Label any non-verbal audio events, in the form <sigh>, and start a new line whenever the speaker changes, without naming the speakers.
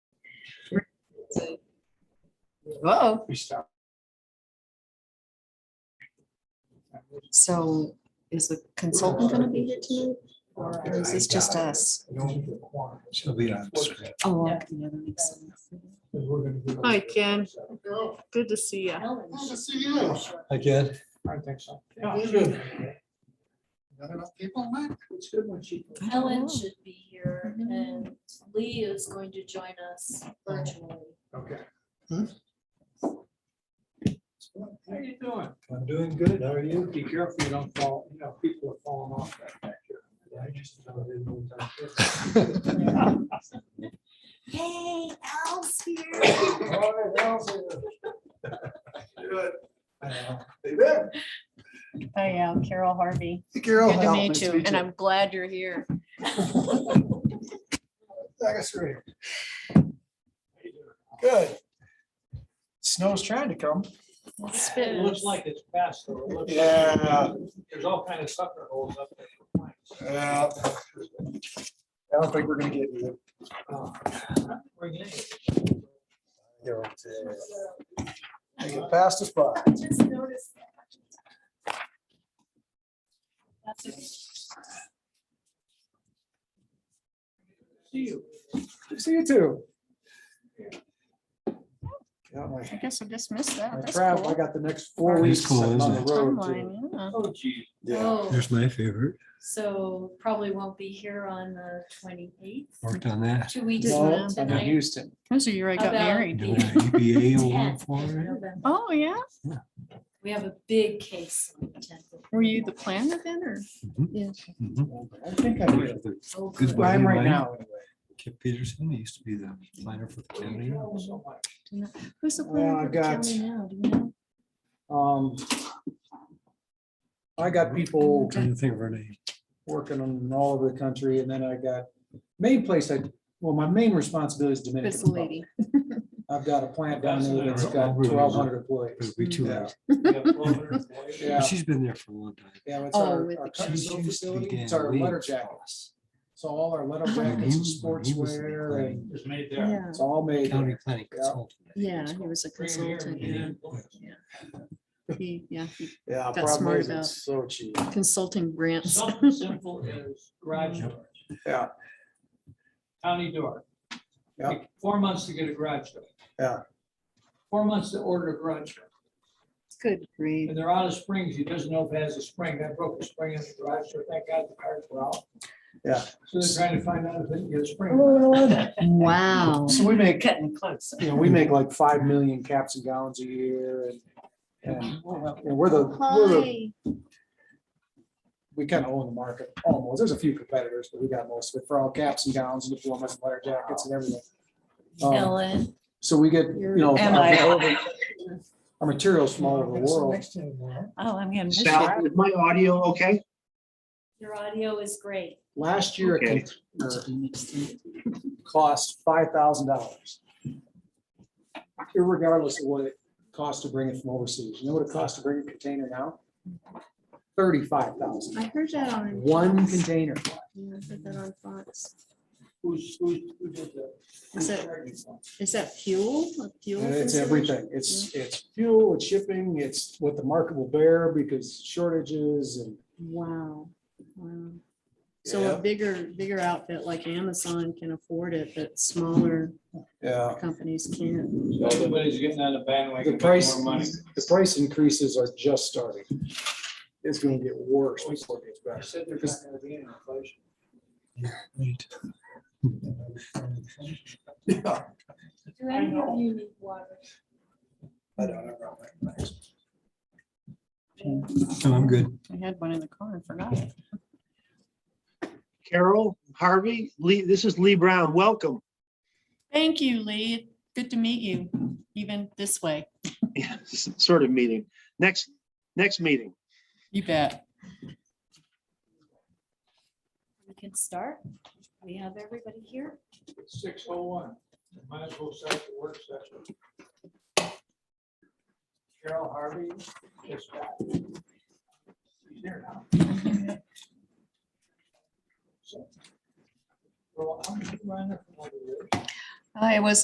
Whoa,
We stopped.
so is the consultant gonna be here tonight? Or is this just us?
She'll be on screen.
Oh, okay, yeah, that makes sense.
Hi, Ken. Good to see you.
Nice to see you.
Again,
I think so.
Yeah.
Not enough people, Mike? It's good when she.
I don't
Helen
know.
Oh.
should be here and Lee is going to join us virtually.
Okay.
Hmm?
How you doing?
I'm doing good. How are you?
Be careful you don't fall, you know, people are falling off that back here.
I just about didn't know what time it
Hey, Al's here.
<laughs> All right, how's it?
<laughs>
Good. Hey there.
I am Carol Harvey.
Carol.
Good to meet you, and I'm glad you're here.
Second screen. Good. Snow's trying to come.
It's
It
been-
looks like it's past, though. It looks-
Yeah.
There's all kind of sucker holes up there. for planks.
Yeah. I Uh, don't think we're gonna get you.
Oh, Bring it in.
You get past the spot.
Just noticed that. That's okay.
See you. See you too. Got my-
I guess I just missed that.
my
That's
travel, I
cool.
got the next four
That's
weeks
cool,
sitting on the
isn't
road. to-
Timeline, yeah.
Oh, gee.
Yeah.
Oh,
There's my favorite.
so probably won't be here on the twenty-eighth,
Worked on that.
two weeks
No,
from
I'm in
tonight.
Houston.
Those are year I got
About-
married.
Doing E a EBA award
10th
for
of
it.
November.
Oh, yeah?
We have a big case. on the 10th of
Were you the
November.
planner then or?
Mhm.
I think I will.
Oh,
Good
good.
one.
I'm right
Mine.
now. anyway.
Mm-hmm. Kip Peterson, he used to be the planner for the county.
Who's the
Well,
planner
I've
for the
got-
county now? Do you know?
Um. I got people
Trying to think of her name.
working on all over the country and then I got, main place I, well, my main responsibility is Dominican.
It's the lady.
Republic. I've got a plant down there that's got
Over there.
twelve hundred
It
employees.
would be too
Yeah.
late.
Yeah.
But She's been there for a long time.
Yeah, it's
Oh,
our,
with
our
the
custom
She
built
used to
facility,
be
it's
Dan
our
Lee's
letter jackets.
boss.
So all our letter jackets
When
and
Oh, he- when he was the
sportswear and
It's made there.
Yeah,
it's all made.
County
there.
planning
Yeah.
consultant.
yeah, he was a
Bring 'em here
consultant.
and
Yeah,
then-
he, yeah, he-
Yeah,
Got
problem
smart
is
about-
it's so cheap.
consulting grants.
<laughs> Something simple as garage door,
Yeah,
county door.
Yeah.
Like Four months to get a garage door.
Yeah.
Four months to order a garage door.
Good grief.
And they're out of springs. He doesn't know if it has a spring. I broke a spring in the garage, so thank God the cars were out.
Yeah.
So they're trying to find out if they can get a spring.
Wow.
so we make,
Cutting close.
you know, we make like five million caps and gowns a year and, and and we're the, we're the,
Hi.
we kind of own the market almost. There's a few competitors, but we got most of it for all caps and gowns and diplomas and letter jackets and everything. Um,
Ellen.
So we get, you know.
Am
our-
I?
Our materials from all over the world.
Oh, I'm gonna miss you.
Sal, is my audio okay?
Your audio is great.
Last year,
Okay.
it cost five thousand dollars. Irregardless of what it cost to bring it from overseas. You know what it costs to bring a container now? Thirty-five thousand.
I heard that on.
One container.
Yeah, I heard that on Fox.
Who's, who's, who did that?
Is it- Is that fuel? A fuel
It's
consideration?
everything. It's, it's fuel, it's shipping, it's what the market will bear because shortages and.
Wow, wow. So a bigger, bigger outfit like Amazon can afford it, but smaller
Yeah.
companies can't.
Everybody's getting on the bandwagon.
The price, the price increases are just starting. It's gonna get worse before it gets better.
said there's not gonna be any inflation.
Right. <laughs>
Do any of you need water?
I don't know.
No, I'm good.
I had one in the car and forgot it.
Carol, Harvey, Lee, this is Lee Brown. Welcome. <laughs>
Thank you, Lee. Good to meet you, even this way.
Sort of meeting. Next, next meeting.
You bet.
We can start. We have everybody here.
Six oh one, might as well start the work session. Carol Harvey is back. She's here now. So, Well, how many you run it for?
I was